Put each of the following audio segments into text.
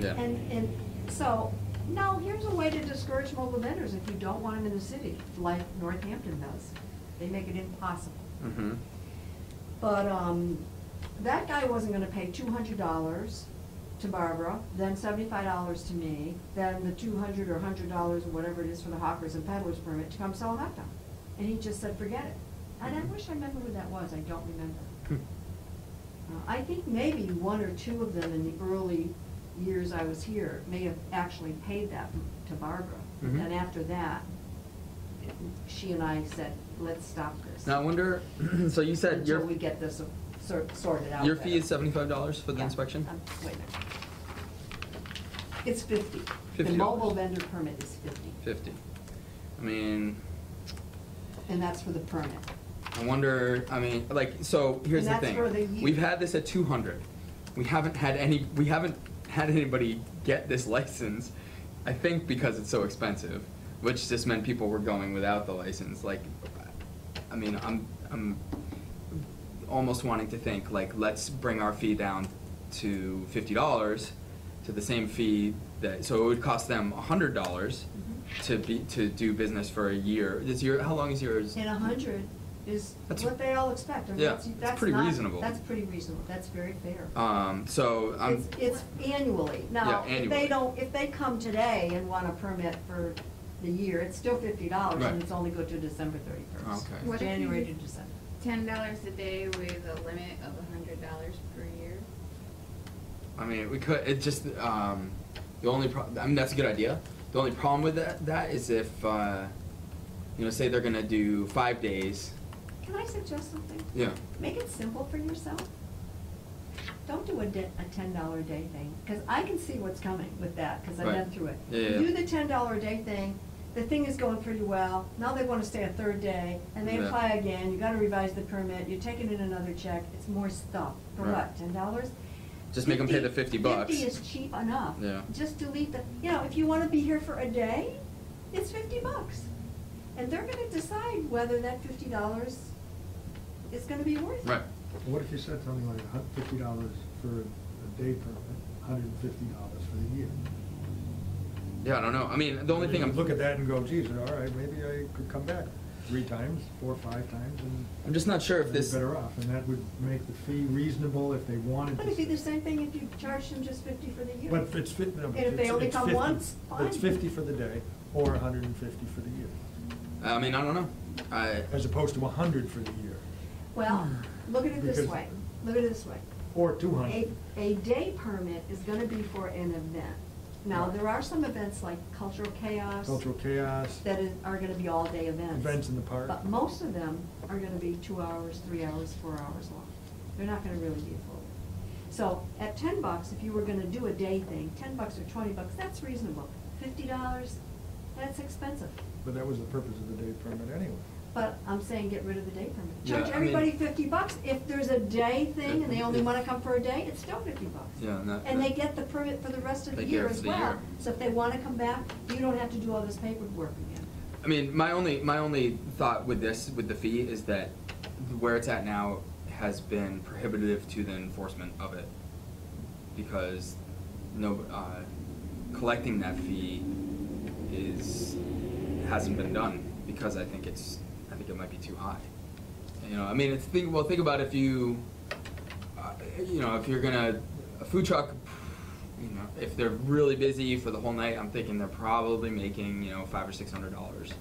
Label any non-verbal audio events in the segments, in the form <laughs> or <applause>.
Yeah. And, and so, no, here's a way to discourage mobile vendors if you don't want them in the city, like Northampton does. They make it impossible. Mm-hmm. But, um, that guy wasn't gonna pay two hundred dollars to Barbara, then seventy-five dollars to me, then the two hundred or hundred dollars or whatever it is for the hawkers and peddlers permit to come sell a hot dog. And he just said, forget it. And Mm-hmm. I wish I remember who that was, I don't remember. Uh, I think maybe one or two of them in the early years I was here may have actually paid that to Barbara. Mhm. And after that, it- she and I said, let's stop this. Now, I wonder, <clears throat> so you said Until your, we get this sor- sorted out. your fee better. is seventy-five dollars for the Yeah. inspection? Um, Wait a minute. It's fifty. The $50. mobile vendor permit is fifty, Fifty. I mean, and that's for the permit. I wonder, I mean, like, so here's And the that's for the thing. year. We've had this at two hundred. We haven't had any, we haven't had anybody get this license, I think because it's so expensive, which just meant people were going without the license, like, I mean, I'm, I'm almost wanting to think, like, let's bring our fee down to fifty dollars, to the same fee that, so it would cost them a hundred dollars Mm-hmm. to be, to do business for a year. Is your, how long is yours? And a hundred is That's- what they all expect. I mean, Yeah, that's- it's that's pretty not- reasonable. That's pretty reasonable, that's very fair. Um, so I'm, It's, it's annually. Now, Yeah, if annually. they don't, if they come today and want a permit for the year, it's still fifty dollars, Right. and it's only go to December thirty-first. Okay. What if January to you- December. Ten dollars a day with a limit of a hundred dollars per year. I mean, we could, it just, um, the only pro, I mean, that's a good idea. The only problem with that, that is if, uh, you know, say they're gonna do five days, Can I suggest something? yeah. Make it simple for yourself. Don't do a di- a ten dollar a day thing, because I can see what's coming with that, because I've Right. been through it. Yeah, yeah, You yeah. Do the ten dollar a day thing, the thing is going pretty well, now they wanna stay a third day, and they Yeah. apply again, you gotta revise the permit, you're taking in another check, it's more stuff. For Right. what, ten dollars? Just make 'em pay the 50 bucks. Fifty is cheap enough. Yeah. Just delete the, you know, if you wanna be here for a day, it's fifty bucks. And they're gonna decide whether that fifty dollars is gonna be worth it. Right. What if you said something like a hun- fifty dollars for a day permit, hundred and fifty dollars for the year? Yeah, I don't know. I mean, the only thing You I'm. Look at that and go, geez, all right, maybe I could come back three times, four, or five times, and. I'm just not sure if I'd be this- Better off, and that would make the fee reasonable if they wanted to. But it'd be the say- same thing if you charged them just fifty for the year. But it's fif- no, And but if they it's- only it's come 50. once, fine. It's fifty for the day, or a hundred and fifty for the year, I mean, I don't know. I. as opposed to a hundred for the year, Well, look at it this Because- way, look at it this way. or two A, hundred. a day permit is gonna be for an event. Now, there are some events like cultural chaos. Cultural chaos. That is, are gonna be all-day events. Events in the park. But most of them are gonna be two hours, three hours, four hours long. They're not gonna really be full. So at ten bucks, if you were gonna do a day thing, ten bucks or twenty bucks, that's reasonable. Fifty dollars, that's expensive. But that was the purpose of the day permit anyway. But I'm saying get rid of the day permit. Yeah, Charge I mean- everybody fifty bucks. If there's a day thing and they only wanna come for a day, it's still fifty bucks. Yeah, and that- And they that- get the permit for the rest of the They get it year for as the year. well. So if they wanna come back, you don't have to do all this paperwork again. I mean, my only my only thought with this with the fee is that where it's at now has been prohibitive to the enforcement of it because no uh, collecting that fee is hasn't been done because I think it's I think it might be too high. You know, I mean, it's think well think about if you uh, you know if you're gonna a food truck you know, if they're really busy for the whole night, I'm thinking they're probably making, you know, five or six hundred dollars.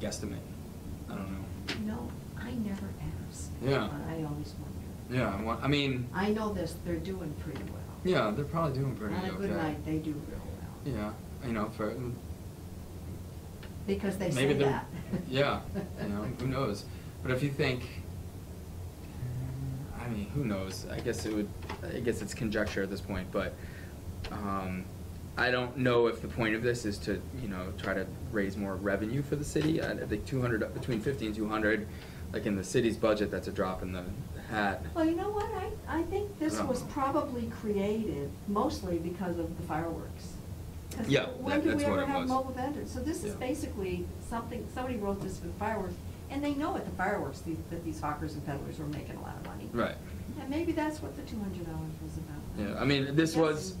Guesstimate. I don't know. No, I never ask. Yeah. But I always wonder. Yeah, I want, I mean, I know this, they're doing pretty well. yeah, they're probably doing pretty okay. On a good night, they do real well. Yeah, you know, for, Because they say maybe they're, that. <laughs> yeah, you know, who knows? But if you think, I mean, who knows? I guess it would, I guess it's conjecture at this point, but, um, I don't know if the point of this is to, you know, try to raise more revenue for the city. I I think two hundred, between fifty and two hundred, like in the city's budget, that's a drop in the hat. Well, you know what, I, I think this Yeah. was probably created mostly because of the fireworks. 'Cause Yeah, When that- do that's we what ever it have was. mobile vendors? So this is Yeah. basically something, somebody wrote this for the fireworks, and they know at the fireworks the- that these hawkers and peddlers were making a lot of money. Right. And maybe that's what the two hundred dollars was about. Yeah, I mean, this Yes. was,